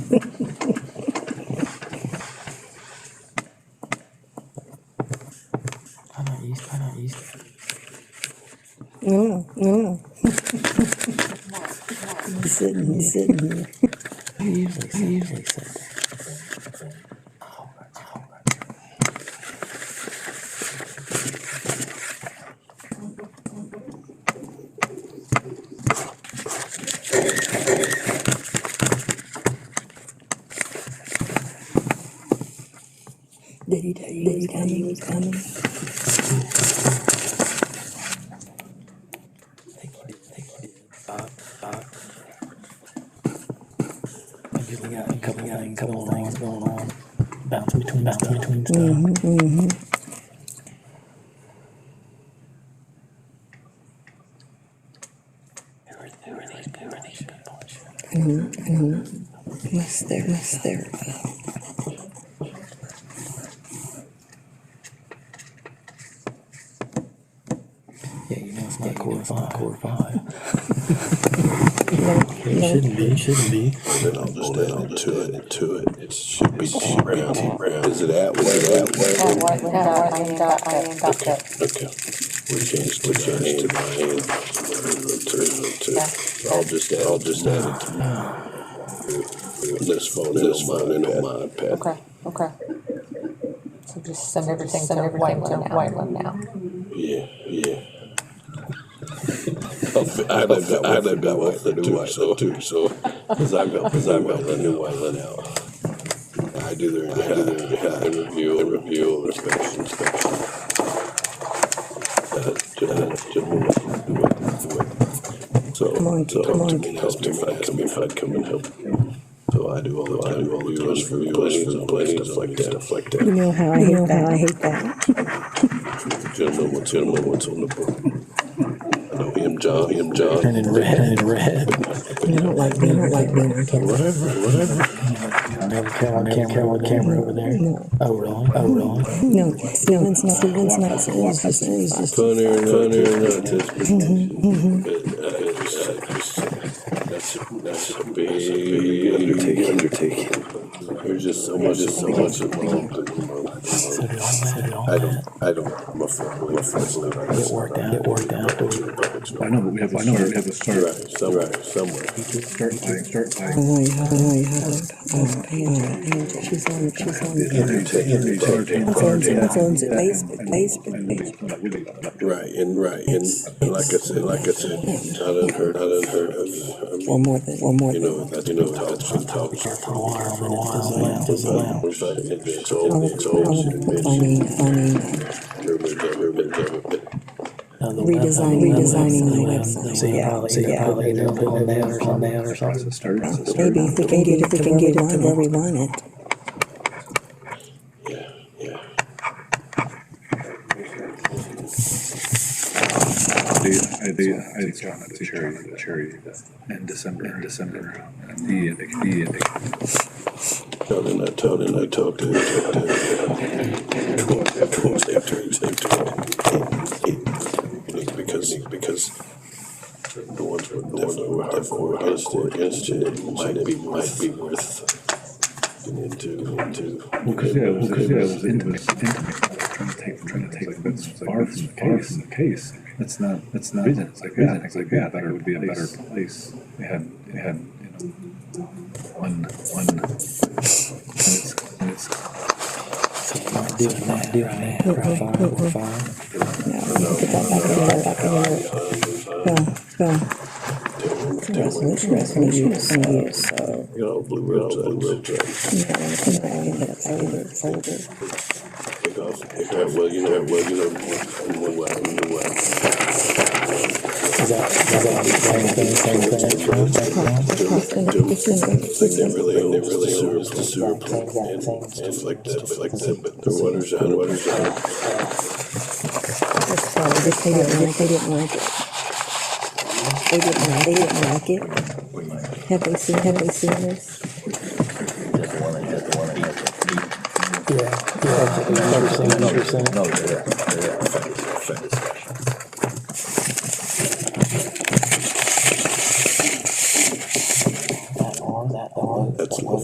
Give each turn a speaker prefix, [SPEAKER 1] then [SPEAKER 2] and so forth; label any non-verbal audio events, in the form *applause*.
[SPEAKER 1] Paraíso, paraíso.
[SPEAKER 2] Não, não. Isso aí, isso aí.
[SPEAKER 1] Usually, usually said that.
[SPEAKER 2] Daddy, daddy, daddy, daddy was coming.
[SPEAKER 1] Thank you, thank you. Uh, uh, I'm getting out a couple things, couple things going on. Bounce between, bounce between stuff. Who are, who are these, who are these people?
[SPEAKER 2] Mess there, mess there.
[SPEAKER 1] Yeah, you know it's not core five. Core five.
[SPEAKER 2] No,
[SPEAKER 1] It
[SPEAKER 2] no.
[SPEAKER 1] shouldn't be. It shouldn't be.
[SPEAKER 3] Then I'll just add it to it, to it. It should be T Brown. Is it that way? That
[SPEAKER 4] That white went out, I ain't got, I ain't got that.
[SPEAKER 3] way? Okay. We changed, we changed to Diane. To,
[SPEAKER 4] Yeah.
[SPEAKER 3] to, I'll just add, I'll just add it to this phone and on mine and on my iPad.
[SPEAKER 4] Okay, okay. So just send everything to white one now. White one now.
[SPEAKER 3] Yeah, *laughs* yeah. I lived that, I lived that way too, so, too, so. *laughs* Cause I got, cause I got the new one out. I do their, I do their, *laughs* yeah, I review, I review, inspection, inspection. Uh, general- general, do it, do it. So,
[SPEAKER 2] Come on,
[SPEAKER 3] so,
[SPEAKER 2] come
[SPEAKER 3] to
[SPEAKER 2] on.
[SPEAKER 3] me, that's me, if I come, if I come and help. So I do all the, I do all the reviews for plannings and stuff like that, stuff like
[SPEAKER 2] You
[SPEAKER 3] that.
[SPEAKER 2] know how I hate that. I hate that.
[SPEAKER 3] Gentlemen, what's, gentlemen, what's on the book? I know him, John, him, John.
[SPEAKER 1] Turning red. Turning red.
[SPEAKER 2] I don't like being, I don't like being on camera.
[SPEAKER 3] Whatever, whatever.
[SPEAKER 1] Another camera. Another camera. Camera, camera over there.
[SPEAKER 2] No,
[SPEAKER 1] Oh really? Oh really?
[SPEAKER 2] no, no, it's not, it's not, it's just, it's just.
[SPEAKER 3] Funny or not, funny or not, that's that's that's a big undertaking. Undertaking. There's just so much, so much
[SPEAKER 1] So
[SPEAKER 3] involved.
[SPEAKER 1] did all that. Did all
[SPEAKER 3] I
[SPEAKER 1] that.
[SPEAKER 3] don't, I don't. I'm afraid, I'm afraid.
[SPEAKER 1] Get worked out. Get worked out.
[SPEAKER 5] I know, but we have, I know, we have to start,
[SPEAKER 3] Right, somewhere, somewhere.
[SPEAKER 5] start by, start by.
[SPEAKER 2] Oh, you have, oh, you have. Oh, Angela, Angela, she's on, she's on. That's on, that's on Facebook, Facebook page.
[SPEAKER 3] Right, and right, and and like I said, like I said, not unheard, not unheard of. I mean,
[SPEAKER 2] Or more than, or more
[SPEAKER 3] You
[SPEAKER 2] than.
[SPEAKER 3] know, that's, you know, that's been talked.
[SPEAKER 1] For a while. For a while. Fizzle out. Fizzle out.
[SPEAKER 3] We're trying to get this
[SPEAKER 2] I
[SPEAKER 3] old,
[SPEAKER 2] was,
[SPEAKER 3] it's
[SPEAKER 2] I
[SPEAKER 3] old,
[SPEAKER 2] was
[SPEAKER 3] it's
[SPEAKER 2] planning, planning,
[SPEAKER 3] Urban, urban, urban.
[SPEAKER 1] Now the web-
[SPEAKER 2] redesign,
[SPEAKER 1] the web-
[SPEAKER 2] redesigning the
[SPEAKER 1] web- So
[SPEAKER 2] website,
[SPEAKER 1] you
[SPEAKER 2] yeah.
[SPEAKER 1] probably, so you probably end up putting that or something out or something.
[SPEAKER 5] Start as a start.
[SPEAKER 2] Maybe if we can get it, we can get it to where we want it.
[SPEAKER 3] Yeah, yeah.
[SPEAKER 5] I do, I do, I do count it to cherry, cherry in December, in December. And the, and the, and the.
[SPEAKER 3] Told and I told and I talked to talked to towards after after because because the ones were the ones were hardcore hardcore against it it might be might be worth getting into into
[SPEAKER 5] Because, yeah, it was, yeah, it was intimate, intimate. Trying to take, trying to take the bits far from the case, the case. That's not, that's not. Reason, it's like, yeah, it's like, yeah, that would be a better place. They had, they had, you know, one, one. And it's, and it's
[SPEAKER 1] So you're not doing that, doing that. We're fine. We're fine.
[SPEAKER 2] No, put that back in there, back in there. Go, go. Resolution, resolution, resolution, use, so.
[SPEAKER 3] you know blue roads blue roads
[SPEAKER 2] You know, I think I only had a folder, folder.
[SPEAKER 3] pick off pick off well you know well you know one way one way
[SPEAKER 1] Is that, is that the same thing, same thing? Same thing?
[SPEAKER 2] It's in, it's
[SPEAKER 3] Like they
[SPEAKER 2] in,
[SPEAKER 3] really, they really sewer, was the sewer plant and stuff like that, but like that, but the water's out, water's out.
[SPEAKER 2] it's probably, just they didn't like, they didn't like it. They didn't like, they didn't like it. Have they seen, have they seen this?
[SPEAKER 1] Yeah. Yeah. Thirty percent, thirty percent.
[SPEAKER 6] No, they're, they're,